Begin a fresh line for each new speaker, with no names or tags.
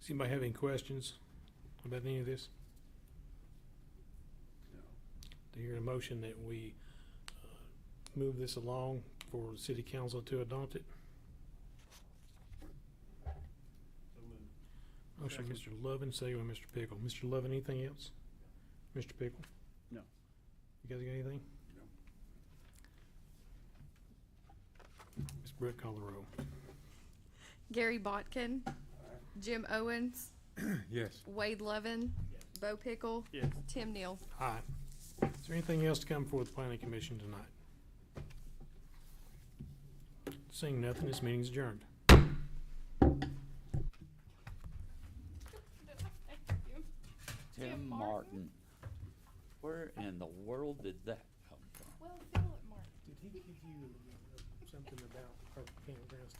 Does anybody have any questions about any of this? Do you hear a motion that we uh, move this along for the city council to adopt it? Motion, by Mr. Lovin, second by Mr. Pickle. Mr. Lovin, anything else? Mr. Pickle?
No.
You guys got anything?
No.
Ms. Brett, call the roll.
Gary Botkin, Jim Owens,
Yes.
Wade Levin, Bo Pickle,
Yes.
Tim Neal.
Aye. Is there anything else to come before the planning commission tonight? Seeing nothing, this meeting's adjourned.
Tim Martin. Where in the world did that come from?
Well, Philip Martin.
Did he give you something about our campgrounds